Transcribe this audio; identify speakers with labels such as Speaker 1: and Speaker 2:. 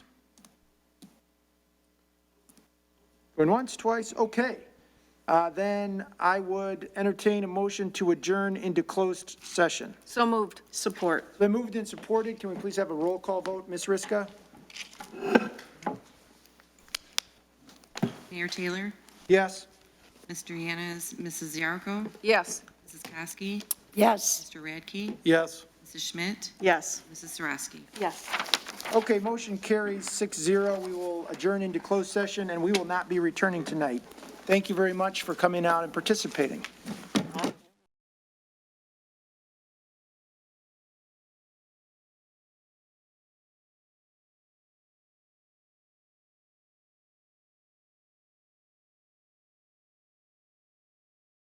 Speaker 1: Going once, twice, okay. Uh, Then I would entertain a motion to adjourn into closed session.
Speaker 2: So moved. Support.
Speaker 1: Been moved and supported. Can we please have a roll call vote? Ms. Riska?
Speaker 3: Mayor Taylor,
Speaker 1: Yes.
Speaker 3: Mr. Yanas, Mrs. Yarko,
Speaker 2: Yes.
Speaker 3: Mrs. Kosky,
Speaker 4: Yes.
Speaker 3: Mr. Radke,
Speaker 1: Yes.
Speaker 3: Mrs. Schmidt,
Speaker 2: Yes.
Speaker 3: Mrs. Sarowski.
Speaker 2: Yes.
Speaker 1: Okay, motion carries six zero. We will adjourn into closed session, and we will not be returning tonight. Thank you very much for coming out and participating.